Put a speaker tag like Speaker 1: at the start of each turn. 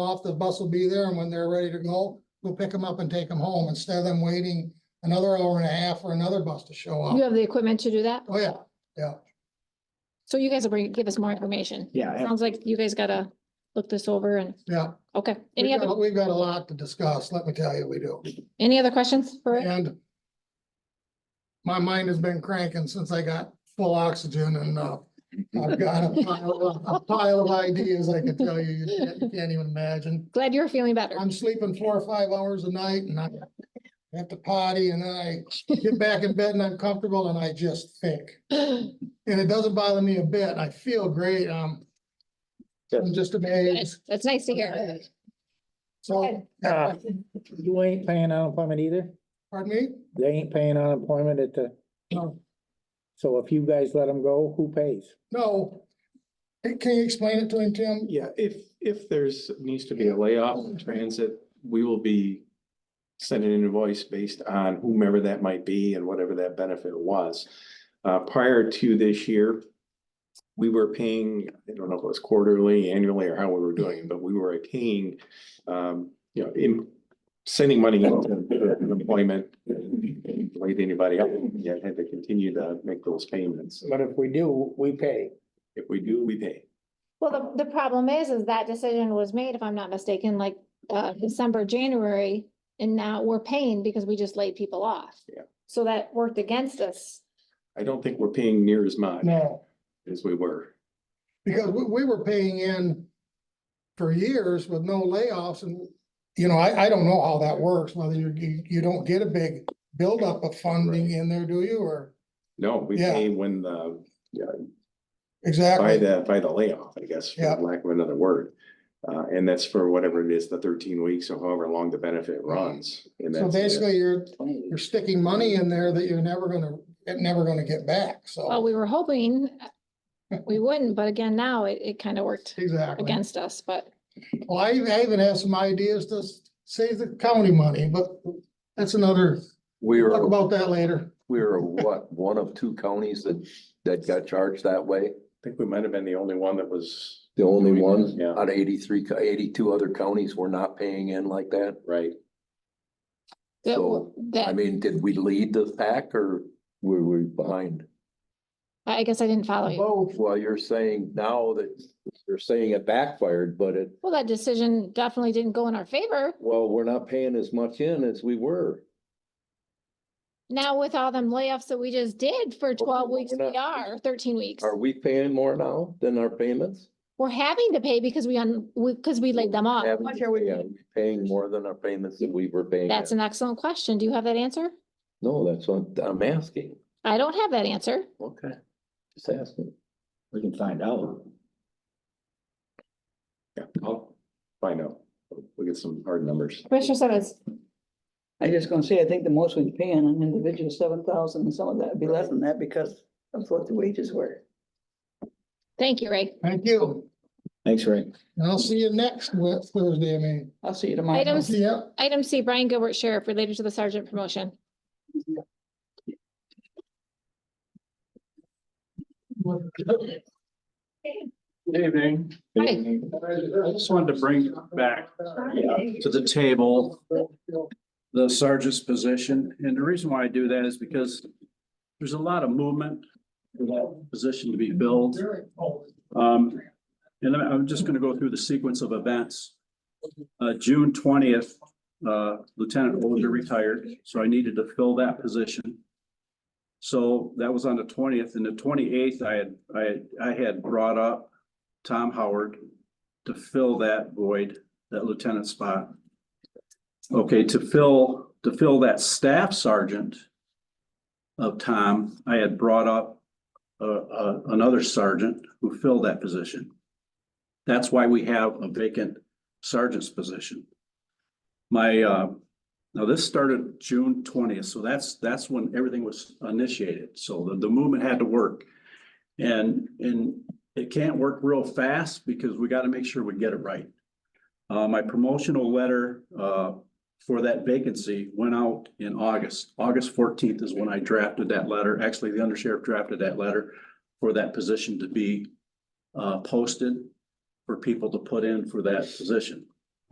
Speaker 1: off, the bus will be there, and when they're ready to go, we'll pick them up and take them home, instead of them waiting another hour and a half for another bus to show
Speaker 2: You
Speaker 1: up.
Speaker 2: have the equipment to do that?
Speaker 1: Oh, yeah,
Speaker 2: So you guys will bring, give us more information.
Speaker 3: Yeah, and-
Speaker 2: Sounds like you guys gotta look this over and,
Speaker 1: yeah.
Speaker 2: okay. Any
Speaker 1: We've
Speaker 2: other,
Speaker 1: got- We've got a lot to discuss, let me tell you, we do.
Speaker 2: any other questions for Rick?
Speaker 1: And my mind has been cranking since I got full oxygen and, uh, I've got a pile, a pile of ideas I could tell you, you can't, you can't even imagine.
Speaker 2: Glad you're feeling better.
Speaker 1: I'm sleeping four or five hours a night and I have to potty and then I get back in bed and I'm comfortable and I just think. And it doesn't bother me a bit. I feel great. Um, I'm just
Speaker 2: Good.
Speaker 1: amazed.
Speaker 2: That's nice to hear.
Speaker 1: So,
Speaker 3: Uh, you ain't paying unemployment either.
Speaker 1: pardon me?
Speaker 3: They ain't paying unemployment at the,
Speaker 1: No.
Speaker 3: so if you guys let them go, who pays?
Speaker 1: No. Can you explain it to him, Tim?
Speaker 4: Yeah, if, if there's, needs to be a layoff in transit, we will be sending an invoice based on whomever that might be and whatever that benefit was. Uh, prior to this year, we were paying, I don't know if it was quarterly, annually, or how we were doing, it, but we were paying, um, you know, in sending money into employment, like anybody else, yeah, had to continue to make those payments.
Speaker 3: But if we do, we pay.
Speaker 4: If we do, we pay.
Speaker 2: Well, the, the problem is, is that decision was made, if I'm not mistaken, like, uh, December, January, and now we're paying because we just laid people off.
Speaker 4: Yeah.
Speaker 2: So that worked against us.
Speaker 4: I don't think we're paying near as much
Speaker 1: No.
Speaker 4: as we were.
Speaker 1: Because we, we were paying in for years with no layoffs and, you know, I, I don't know how that works, whether you, you, you don't get a big buildup of funding in there, do you, or?
Speaker 4: No, we
Speaker 1: Yeah.
Speaker 4: pay when the, by
Speaker 1: Exactly,
Speaker 4: the, by the layoff, I guess, for
Speaker 1: Yeah.
Speaker 4: lack of another word. Uh, and that's for whatever it is, the thirteen weeks or however long the benefit runs. And
Speaker 1: so
Speaker 4: that's
Speaker 1: basically you're, you're sticking money in there that you're never gonna, it never gonna get back,
Speaker 2: Well,
Speaker 1: so.
Speaker 2: we were hoping uh, we wouldn't, but again, now it, it kind of worked
Speaker 1: Exactly,
Speaker 2: against us, but
Speaker 1: well, I even, I even have some ideas to s- save the county money, but that's another,
Speaker 5: We
Speaker 1: talk
Speaker 5: were,
Speaker 1: about that later.
Speaker 5: we were what, one of two counties that, that got charged that way?
Speaker 4: I think we might have been the only one that was,
Speaker 5: The only one?
Speaker 4: Yeah.
Speaker 5: Out of 83 co- 82 other counties were not paying in like that?
Speaker 4: right,
Speaker 2: that,
Speaker 5: So, I
Speaker 2: that,
Speaker 5: mean, did we lead the pack or were we behind?
Speaker 2: I guess I didn't follow you.
Speaker 5: Both. Well, you're saying now that, you're saying it backfired, but it,
Speaker 2: Well, that decision definitely didn't go in our favor.
Speaker 5: well, we're not paying as much in as we were.
Speaker 2: Now with all them layoffs that we just did for twelve
Speaker 5: we're
Speaker 2: weeks, we
Speaker 5: not-
Speaker 2: are thirteen weeks.
Speaker 5: Are we paying more now than our payments?
Speaker 2: We're having to pay because we, un we, because we laid them off.
Speaker 5: Having to pay, Are we Paying more than our payments that we were paying?
Speaker 2: That's
Speaker 5: in?
Speaker 2: an excellent question. Do you have that answer?
Speaker 5: No, that's what I'm asking.
Speaker 2: I don't have that answer.
Speaker 5: Okay. Just asking.
Speaker 3: We can find out.
Speaker 4: yeah, I'll find out. We'll get some hard numbers.
Speaker 2: Commissioner Simmons.
Speaker 6: I was just gonna say, I think the most we can pay on an individual, seven thousand, and some of that would be less than that because of what the wages were.
Speaker 2: Thank you, Ray.
Speaker 1: Thank you,
Speaker 3: Thanks, Rick.
Speaker 1: and I'll see you next Wed- Thursday, I mean,
Speaker 6: I'll see you tomorrow.
Speaker 2: Items-
Speaker 1: see ya.
Speaker 2: Item C, Brian Gilbert Sheriff related to the sergeant promotion.
Speaker 7: Good evening.
Speaker 2: Hi.
Speaker 7: I just wanted to bring back to the table the sergeant's position. And the reason why I do that is because there's a lot of movement for that position to be filled. Um, and I'm- I'm just gonna go through the sequence of events. Uh, June twentieth, uh, Lieutenant Older retired, so I needed to fill that position. So that was on the twentieth and the twenty-eighth, I had, I, had- I had brought up Tom Howard to fill that void, that lieutenant spot. Okay, to fill, to fill that staff sergeant of Tom, I had brought up uh, uh, another sergeant who filled that position. That's why we have a vacant sergeant's position. My, uh, now this started June twentieth, so that's, that's when everything was initiated. So the, the movement had to work. And, and it can't work real fast because we gotta make sure we get it right. Uh, my promotional letter, uh, for that vacancy went out in August. August fourteenth is when I drafted that letter. Actually, the undersheriff drafted that letter for that position to be, uh, posted for people to put in for that position.